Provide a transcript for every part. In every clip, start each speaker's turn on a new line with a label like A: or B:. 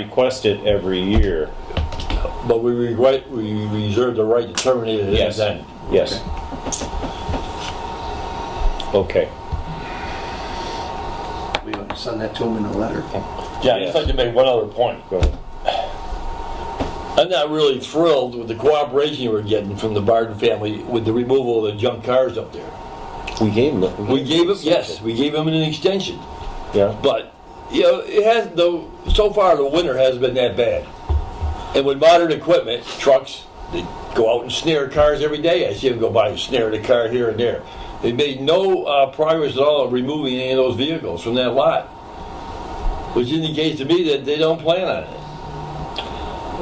A: request it every year.
B: But we regret, we reserve the right to terminate it at
A: Yes.
B: that.
A: Yes. Okay.
C: We want to send that to them in a letter.
B: Yeah, I'd just like to make one other point.
A: Go ahead.
B: I'm not really thrilled with the cooperation we're getting from the Barden family with the removal of the junk cars up there.
A: We gave them.
B: We gave it, yes, we gave them an extension,
A: Yeah.
B: but, you know, it has, the, so far the winter hasn't been that bad. And with modern equipment, trucks, they go out and snare cars every day. I see them go by and snare the car here and there. They made no uh, progress at all in removing any of those vehicles from that lot, which indicates to me that they don't plan on it.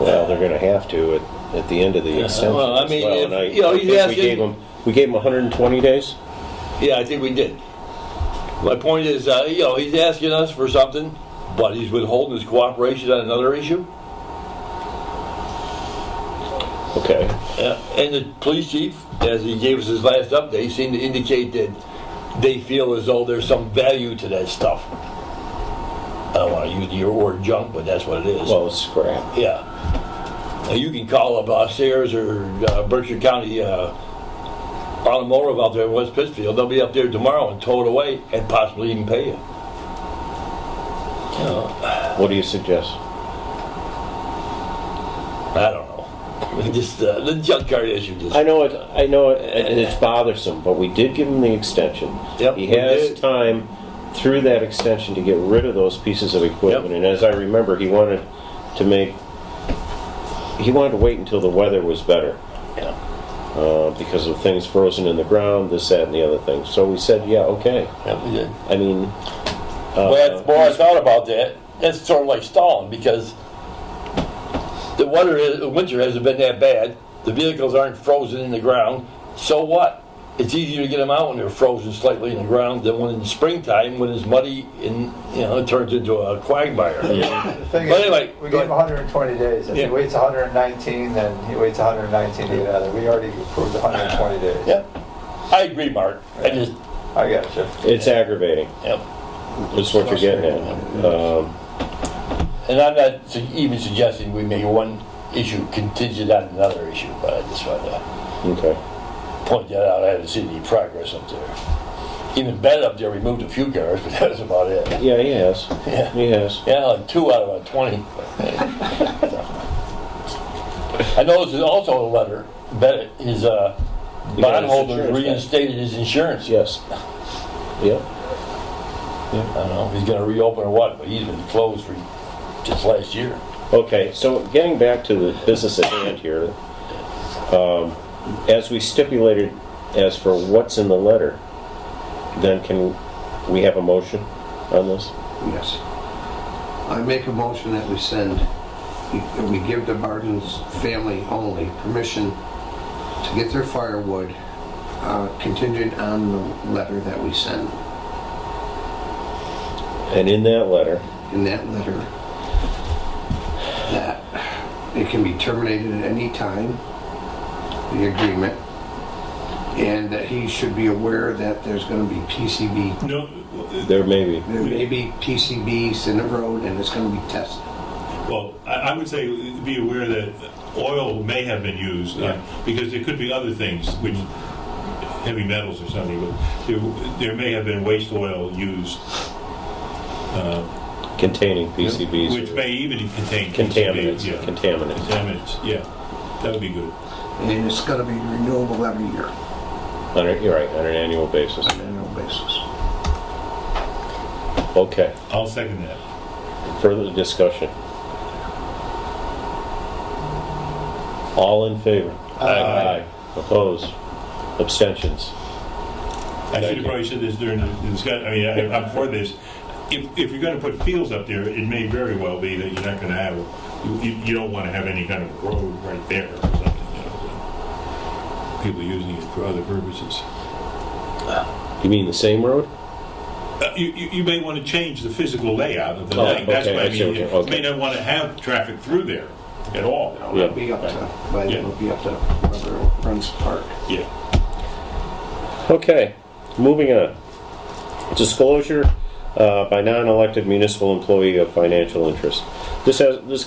A: Well, they're gonna have to at, at the end of the extension.
B: Uh, well, I
A: as
B: mean, if-
A: and I-
B: you know,
A: I
B: he's
A: think we
B: asking-
A: gave 'em- We gave them hundred and twenty days?
B: Yeah, I think we did. My point is, uh, you know, he's asking us for something, but he's withholding his cooperation on another issue.
A: Okay.
B: Uh, and the police chief, as he gave us his last update, seemed to indicate that they feel as though there's some value to that stuff. I don't want to use your word junk, but that's what it is.
A: Well, it's crap.
B: yeah. And you can call up uh, Sayers or uh, Berkshire County uh, automotive out there in West Pittsfield. They'll be up there tomorrow and tow it away and possibly even pay you.
A: What do you suggest?
B: I don't know. Just uh, the junk car issue. Just
A: I know it. I know it, it- it's bothersome, but we did give him the extension.
B: Yep,
A: he
B: we
A: has
B: did.
A: time through that extension to get rid of those pieces of equipment.
B: Yep.
A: And as I remember, he wanted to make. He wanted to wait until the weather was better
B: yeah.
A: uh, because of things frozen in the ground, this, that, and the other thing. So we said, yeah, okay.
B: yeah, we did.
A: I mean, uh,
B: Well, the more I thought about that, that's sort of like stalling because the weather, is, the winter hasn't been that bad. The vehicles aren't frozen in the ground. So what? It's easier to get them out when they're frozen slightly in the ground than when in the springtime when it's muddy and you know it turns into a quagmire.
D: The thing
B: But
D: is,
B: anyway,
D: we
B: go
D: gave him 120 days. If
B: Yeah.
D: he waits 119, then he waits 119 days out We already approved 120 days.
B: Yeah, I agree, Mark. I just
D: I got you.
A: it's aggravating.
B: yeah.
A: Is what you're getting at. Um,
B: And I'm not su- even suggesting we make one issue contingent on another issue, but I just wanted to
A: okay.
B: point that out. I haven't seen any progress up there. Even Ben up there removed a few cars, but that was about it.
A: Yeah, he has. He has.
B: Yeah, like two out of a 20. I noticed there's also a letter, Ben, his uh,
A: You got his
B: bondholder
A: insurance back.
B: reinstated his insurance.
A: Yes. Yep.
B: I don't know if he's going to reopen or what, but he's been closed for just last year.
A: Okay, so getting back to the business at hand here, um, as we stipulated as for what's in the letter, then can we have a motion on this?
C: Yes. I make a motion that we send, that we give the Barton's family only permission to get their firewood uh, contingent on the letter that we send.
A: And in that letter,
C: In that letter, that it can be terminated at any time, the agreement, and that he should be aware that there's gonna be PCB
E: No,
A: there may be,
C: There may be PCBs in the road and it's going to be tested.
E: well, I, I would say be aware that oil may have been used uh, because there could be other things, which heavy metals or something, but there, there may have been waste oil used,
A: containing PCBs.
E: which may even contain
A: Contaminants,
E: PCBs, yeah.
A: contaminants.
E: Contaminants, yeah. That would be good.
C: And it's going to be renewable every year
A: On a, you're right, on an annual basis.
C: on an annual basis.
A: Okay,
E: I'll second that.
A: further discussion. All in favor? Aye. Opposed? Abstentions?
E: I should have probably said this during the discussion, I mean, I- I'm for this. If, if you're going to put fields up there, it may very well be that you're not going to have, you, you- you don't want to have any kind of road right there or something, you know. so. People using it for other purposes.
A: You mean the same road?
E: Uh, You, you you may want to change the physical layout of the
A: Oh,
E: thing. That's
A: okay,
E: what I
A: I see
E: mean.
A: what you're-
E: You
A: okay.
E: may not want to have traffic through there at all.
C: It'll be up to, but it'll be up to whoever runs the park.
E: Yeah.
A: Okay, moving on. Disclosure uh, by non-elected municipal employee of financial interest. This has, this